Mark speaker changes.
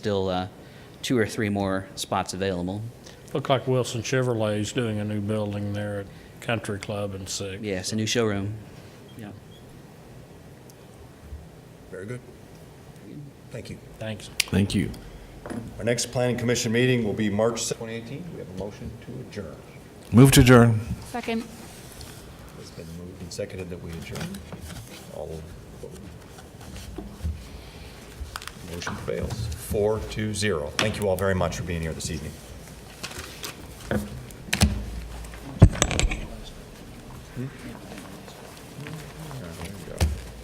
Speaker 1: still uh, two or three more spots available.
Speaker 2: Looked like Wilson Chevrolet's doing a new building there at Country Club in Six.
Speaker 1: Yes, a new showroom. Yeah.
Speaker 3: Very good. Thank you.
Speaker 2: Thanks.
Speaker 4: Thank you.
Speaker 3: Our next planning commission meeting will be March 6th, 2018. We have a motion to adjourn.
Speaker 4: Move to adjourn.
Speaker 5: Second.
Speaker 3: It's been moved and seconded that we adjourn. All vote. Motion fails, four to zero. Thank you all very much for being here this evening. Hmm?